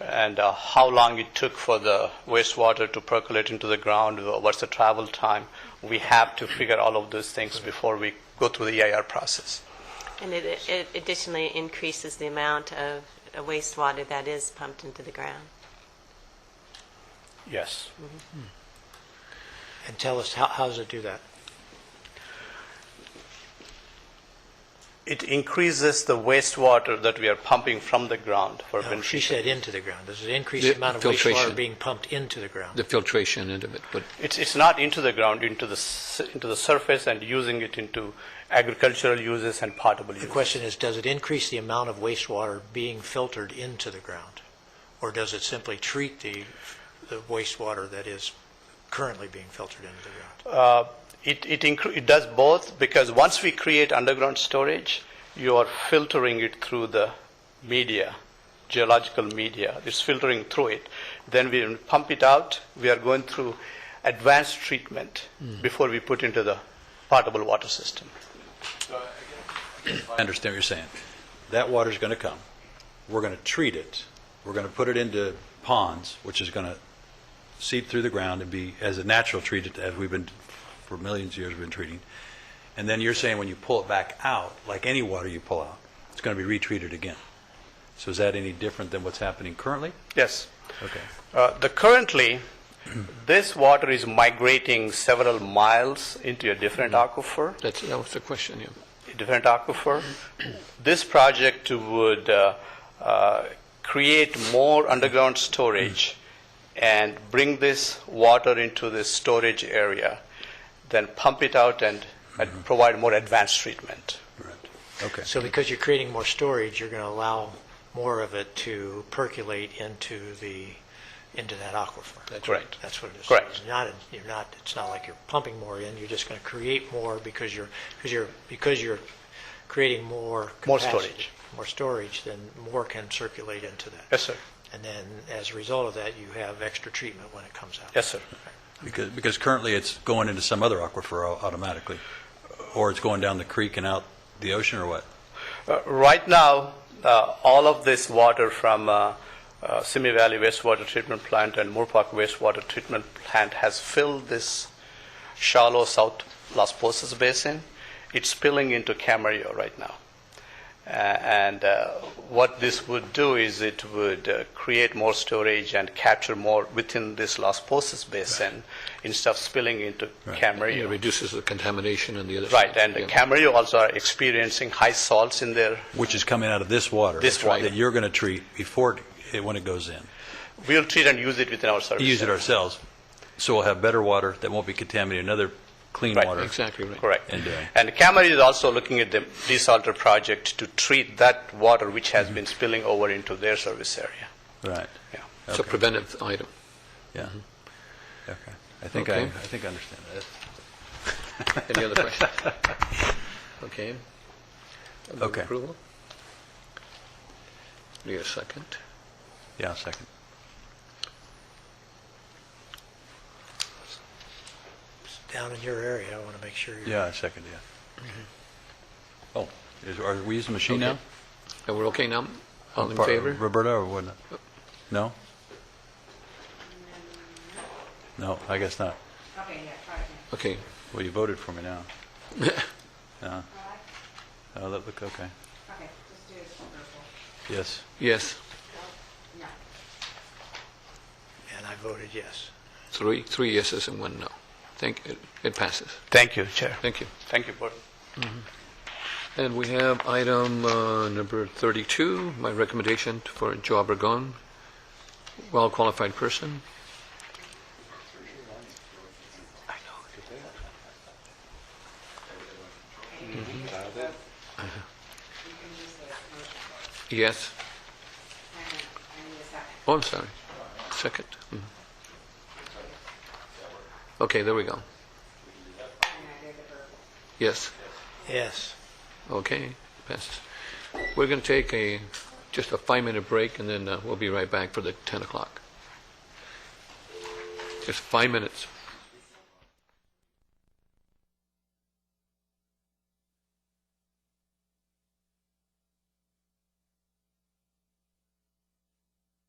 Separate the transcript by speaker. Speaker 1: and uh, how long it took for the wastewater to percolate into the ground, uh, what's the travel time. We have to figure all of those things before we go through the EIR process.
Speaker 2: And it it additionally increases the amount of wastewater that is pumped into the ground.
Speaker 1: Yes.
Speaker 3: And tell us, how, how does it do that?
Speaker 1: It increases the wastewater that we are pumping from the ground for
Speaker 3: No, Uh, she
Speaker 1: beneficial.
Speaker 3: said into the ground. Does it increase
Speaker 4: The
Speaker 3: the amount of wastewater
Speaker 4: filtration.
Speaker 3: being pumped into the ground?
Speaker 4: the filtration end of it, but
Speaker 1: It's, it's not into the ground, into the, s- into the surface and using it into agricultural uses and potable
Speaker 3: The
Speaker 1: uses.
Speaker 3: question is, does it increase the amount of wastewater being filtered into the ground? Or does it simply treat the, the wastewater that is currently being filtered into the ground?
Speaker 1: Uh, It, it, incre- it does both because once we create underground storage, you are filtering it through the media, geological media. It's filtering through it. Then we pump it out. We are going through advanced treatment before we put into the potable water system.
Speaker 5: I understand what you're saying. That water's going to come. We're going to treat it. We're going to put it into ponds, which is going to seep through the ground and be as a natural treated as we've been, for millions of years we've been treating. And then you're saying when you pull it back out, like any water you pull out, it's going to be retreated again. So is that any different than what's happening currently?
Speaker 1: Yes.
Speaker 5: Okay.
Speaker 1: Uh, the currently, this water is migrating several miles into a different aquifer.
Speaker 4: that's, that was the question, yeah.
Speaker 1: different aquifer. This project would uh, uh, create more underground storage and bring this water into this storage area, then pump it out and and provide more advanced treatment.
Speaker 5: Right. Okay.
Speaker 3: So because you're creating more storage, you're going to allow more of it to percolate into the, into that aquifer?
Speaker 1: Correct.
Speaker 3: That's what it is.
Speaker 1: Correct.
Speaker 3: It's not, you're not, it's not like you're pumping more in, you're just going to create more because you're, because you're, because you're creating more
Speaker 1: More
Speaker 3: capacity,
Speaker 1: storage.
Speaker 3: More storage, then more can circulate into that.
Speaker 1: Yes, sir.
Speaker 3: And then as a result of that, you have extra treatment when it comes out.
Speaker 1: Yes, sir.
Speaker 5: Because, because currently it's going into some other aquifer au- automatically, or it's going down the creek and out the ocean or what?
Speaker 1: Uh, Right now, uh, all of this water from uh, uh, Simi Valley Wastewater Treatment Plant and Moore Park Wastewater Treatment Plant has filled this shallow South Las Posas Basin. It's spilling into Camarillo right now. Uh, And uh, what this would do is it would uh, create more storage and capture more within this Las Posas Basin instead of spilling into
Speaker 4: It
Speaker 1: Camarillo.
Speaker 4: reduces the contamination and the other.
Speaker 1: Right,
Speaker 4: side,
Speaker 1: and
Speaker 4: yeah.
Speaker 1: Camarillo also are experiencing high salts in their
Speaker 5: Which is coming out of this water.
Speaker 1: This water.
Speaker 5: That you're going to treat before, it- it- when it goes in.
Speaker 1: We'll treat and use it within our service.
Speaker 5: Use it
Speaker 1: center.
Speaker 5: ourselves, so we'll have better water that won't be contaminated, another clean
Speaker 1: Right.
Speaker 5: water.
Speaker 4: Exactly, right.
Speaker 1: Correct.
Speaker 5: And, uh,
Speaker 1: And Camry is also looking at the desalter project to treat that water which
Speaker 5: Mm-hmm.
Speaker 1: has been spilling over into their service area.
Speaker 5: Right,
Speaker 1: Yeah.
Speaker 4: It's a preventive item.
Speaker 5: yeah. Okay. I think I, I
Speaker 4: Mm-hmm. Okay.
Speaker 5: think I understand that.
Speaker 4: Any other questions? Okay. Move
Speaker 5: Okay.
Speaker 4: Approval? Need a second?
Speaker 5: Yeah, second.
Speaker 3: Down in your area, I want to make sure you're.
Speaker 5: Yeah, second, yeah. Oh, is, are we using the machine
Speaker 4: Mm-hmm. Okay.
Speaker 5: now?
Speaker 4: And we're okay now? All in
Speaker 5: Par-
Speaker 4: favor?
Speaker 5: Roberta or what? No? No, I guess not.
Speaker 4: Okay.
Speaker 5: Well, you voted for me now. Yeah. Oh, that look, okay.
Speaker 6: Okay, just do it purple.
Speaker 5: Yes.
Speaker 4: Yes.
Speaker 6: No.
Speaker 3: And I voted yes.
Speaker 4: Three, three yeses and one no. Thank, it It passes.
Speaker 1: Thank you, Chair.
Speaker 4: Thank you.
Speaker 1: Thank you, Board.
Speaker 4: And we have item uh, number 32, my recommendation for Joe Obregon, well-qualified person. Mm-hmm. Yes.
Speaker 6: I need a second.
Speaker 4: Oh, I'm sorry. Second. Mhm. Okay, there we go.
Speaker 6: And I did the purple.
Speaker 4: Yes.
Speaker 3: Yes.
Speaker 4: Okay, passes. We're going to take a, just a five-minute break, and then uh, we'll be right back for the 10 o'clock. Just five minutes.